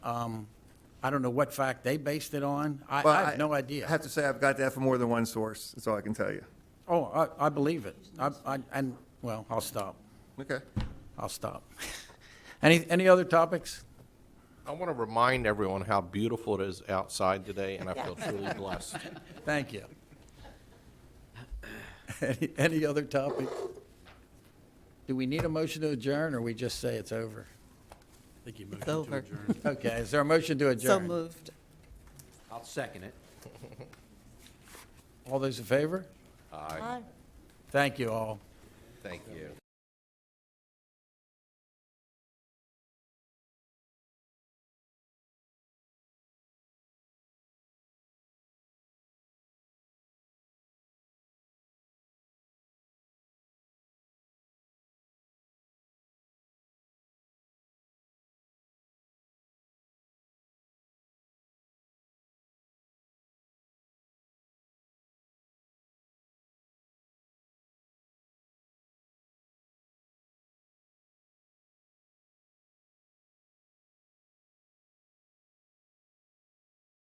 Um, I don't know what fact they based it on. I, Well, I have no idea. I have to say, I've got that from more than one source, that's all I can tell you. Oh, I, I believe it. I, I, and, well, I'll stop. Okay. I'll stop. Any, any other topics? I want to remind everyone how beautiful it is outside today, and I feel truly blessed. Thank you. Any, any other topic? Do we need a motion to adjourn, or we just say it's over? It's over. Okay, is there a motion to So adjourn? moved. I'll second it. All those in favor? Aye. Thank you all. Thank you.